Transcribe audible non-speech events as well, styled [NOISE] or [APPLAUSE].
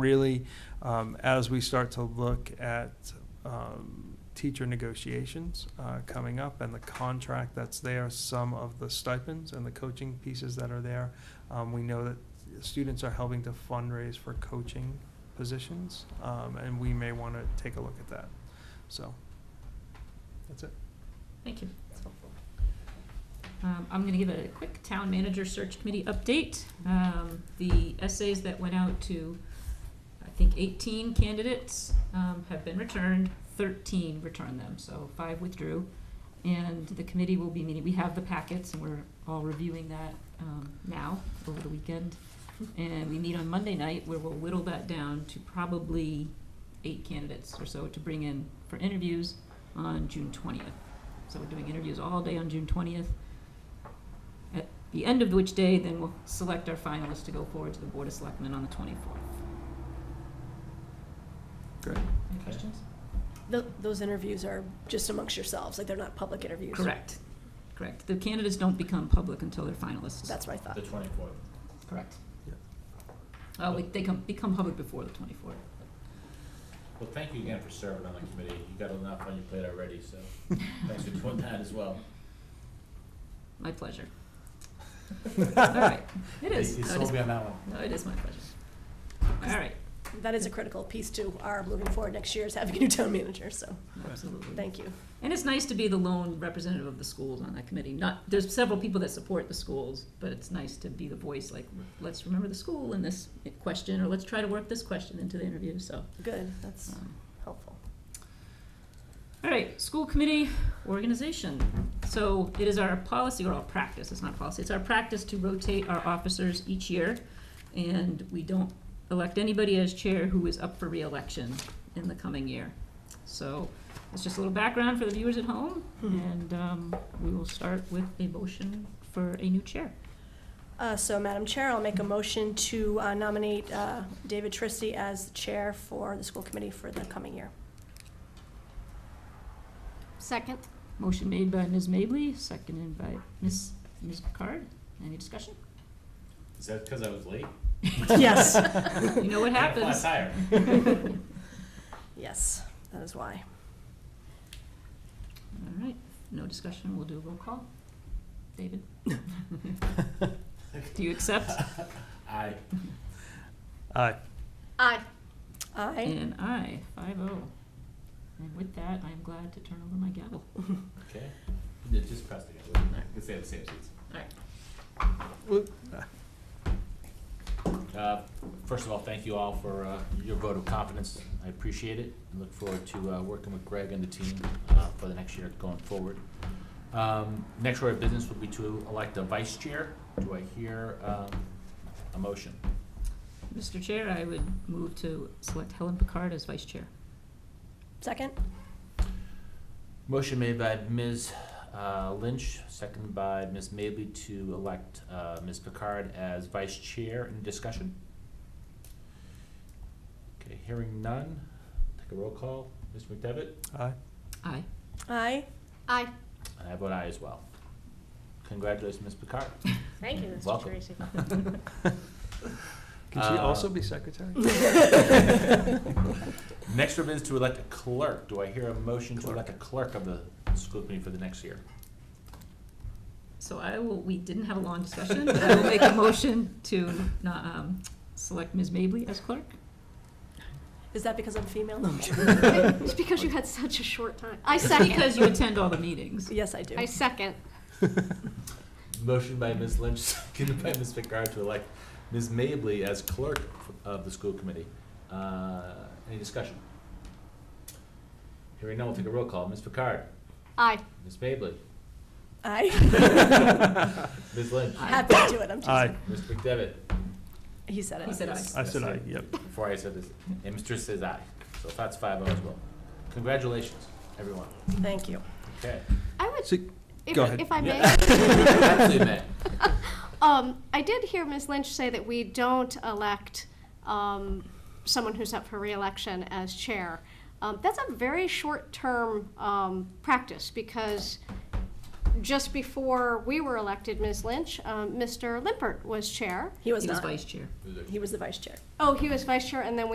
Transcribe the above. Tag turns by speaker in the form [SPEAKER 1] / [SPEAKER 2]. [SPEAKER 1] really, um, as we start to look at, um, teacher negotiations, uh, coming up and the contract that's there, some of the stipends and the coaching pieces that are there. Um, we know that students are helping to fundraise for coaching positions, um, and we may wanna take a look at that. So, that's it.
[SPEAKER 2] Thank you, that's helpful. Um, I'm gonna give a quick town manager search committee update. Um, the essays that went out to, I think eighteen candidates, um, have been returned, thirteen returned them, so five withdrew. And the committee will be meeting, we have the packets and we're all reviewing that, um, now, over the weekend. And we meet on Monday night where we'll whittle that down to probably eight candidates or so to bring in for interviews on June twentieth. So we're doing interviews all day on June twentieth. At the end of which day, then we'll select our finalists to go forward to the Board of Selectmen on the twenty-fourth.
[SPEAKER 1] Great.
[SPEAKER 2] Any questions?
[SPEAKER 3] Th those interviews are just amongst yourselves, like they're not public interviews.
[SPEAKER 2] Correct, correct. The candidates don't become public until they're finalists.
[SPEAKER 3] That's my thought.
[SPEAKER 4] The twenty-fourth.
[SPEAKER 2] correct.
[SPEAKER 1] Yeah.
[SPEAKER 2] Uh, we- they come, become public before the twenty-fourth.
[SPEAKER 4] Well, thank you again for serving on the committee. You got enough on your plate already, so thanks for doing that as well.
[SPEAKER 2] My [LAUGHS] pleasure. [LAUGHS] All right, it is.
[SPEAKER 4] You
[SPEAKER 2] No, it
[SPEAKER 4] sold
[SPEAKER 2] is-
[SPEAKER 4] me on that one.
[SPEAKER 2] No, it is my pleasure. All right,
[SPEAKER 3] That is a critical piece to our moving forward next year is having a new town manager, so
[SPEAKER 2] absolutely.
[SPEAKER 3] thank you.
[SPEAKER 2] And it's nice to be the lone representative of the schools on that committee. Not, there's several people that support the schools, but it's nice to be the voice, like, let's remember the school in this question, or let's try to work this question into the interview, so.
[SPEAKER 3] Good, that's
[SPEAKER 2] um,
[SPEAKER 3] helpful.
[SPEAKER 2] All right, school committee organization. So it is our policy, or our practice, it's not policy, it's our practice to rotate our officers each year. And we don't elect anybody as chair who is up for reelection in the coming year. So it's just a little background for the viewers at home. And um, we will start with a motion for a new chair.
[SPEAKER 3] Uh, So, Madam Chair, I'll make a motion to uh, nominate uh, David Tristi as the chair for the school committee for the coming year.
[SPEAKER 5] Second.
[SPEAKER 2] Motion made by Ms. Mably, seconded by Ms. Ms. Picard. Any discussion?
[SPEAKER 4] Is that because I was late?
[SPEAKER 5] [LAUGHS]
[SPEAKER 2] [LAUGHS]
[SPEAKER 3] Yes.
[SPEAKER 2] You know what
[SPEAKER 4] I had a flat
[SPEAKER 2] happens.
[SPEAKER 4] tire.
[SPEAKER 2] [LAUGHS]
[SPEAKER 3] Yes, that is why.
[SPEAKER 2] All right, no discussion, we'll do a roll call. David? Do you accept? [LAUGHS]
[SPEAKER 4] I,
[SPEAKER 1] Aye.
[SPEAKER 5] Aye.
[SPEAKER 3] Aye.
[SPEAKER 2] And aye, five oh. And with that, I'm glad to turn over my gavel.
[SPEAKER 4] okay. You did just pressed it. I can say the same seats.
[SPEAKER 2] All right.
[SPEAKER 4] Uh, First of all, thank you all for uh, your vote of confidence. I appreciate it and look forward to uh, working with Greg and the team uh, for the next year going forward. Um, Next order of business would be to elect a vice chair. Do I hear um, a motion?
[SPEAKER 2] Mr. Chair, I would move to select Helen Picard as vice chair.
[SPEAKER 3] Second?
[SPEAKER 4] Motion made by Ms. uh, Lynch, seconded by Ms. Mably to elect uh, Ms. Picard as vice chair. Any discussion? Okay, hearing none. Take a roll call. Ms. McDevitt?
[SPEAKER 1] Aye.
[SPEAKER 2] Aye.
[SPEAKER 3] Aye.
[SPEAKER 5] Aye.
[SPEAKER 4] And I vote aye as well. Congratulations, Ms. Picard.
[SPEAKER 5] Thank you, Mr.
[SPEAKER 4] Welcome.
[SPEAKER 5] Tracy.
[SPEAKER 1] [LAUGHS] Can she
[SPEAKER 4] Uh,
[SPEAKER 1] also be [LAUGHS] secretary?
[SPEAKER 4] [LAUGHS] Next up is to elect a clerk. Do I hear a motion to elect a clerk of the school committee for the next year?
[SPEAKER 2] So I will, we didn't have a long discussion, but I will make a motion to, no- um, select Ms. Mably as clerk.
[SPEAKER 3] Is that because I'm
[SPEAKER 5] [LAUGHS]
[SPEAKER 3] female? No.
[SPEAKER 5] It's because you had such a short time. I second.
[SPEAKER 2] Because you attend all the meetings.
[SPEAKER 3] Yes, I do.
[SPEAKER 5] I second.
[SPEAKER 4] Motion by Ms. Lynch, [LAUGHS] seconded by Ms. Picard to elect Ms. Mably as clerk of the school committee. Uh, Any discussion? Hearing none, we'll take a roll call. Ms. Picard?
[SPEAKER 5] Aye.
[SPEAKER 4] Ms. Mably?
[SPEAKER 2] [LAUGHS]
[SPEAKER 3] Aye.
[SPEAKER 4] Ms. Lynch?
[SPEAKER 3] Happy to do it, I'm just,
[SPEAKER 1] Aye.
[SPEAKER 4] Ms. McDevitt?
[SPEAKER 3] he said it.
[SPEAKER 2] He said aye.
[SPEAKER 1] I said aye, yep.
[SPEAKER 4] Before I said this, and Mr. says aye. So that's five oh as well. Congratulations, everyone.
[SPEAKER 3] Thank you.
[SPEAKER 4] Okay.
[SPEAKER 5] I would,
[SPEAKER 1] So,
[SPEAKER 5] if,
[SPEAKER 1] Go ahead.
[SPEAKER 5] if I may.
[SPEAKER 4] Absolutely, Matt.
[SPEAKER 5] Um, I did hear Ms. Lynch say that we don't elect um, someone who's up for reelection as chair. Um, that's a very short-term um, practice because just before we were elected, Ms. Lynch, um, Mr. Limpert was chair.
[SPEAKER 3] He was
[SPEAKER 2] He was
[SPEAKER 3] not.
[SPEAKER 2] vice chair.
[SPEAKER 3] He was the vice chair.
[SPEAKER 5] Oh, he was vice chair, and then we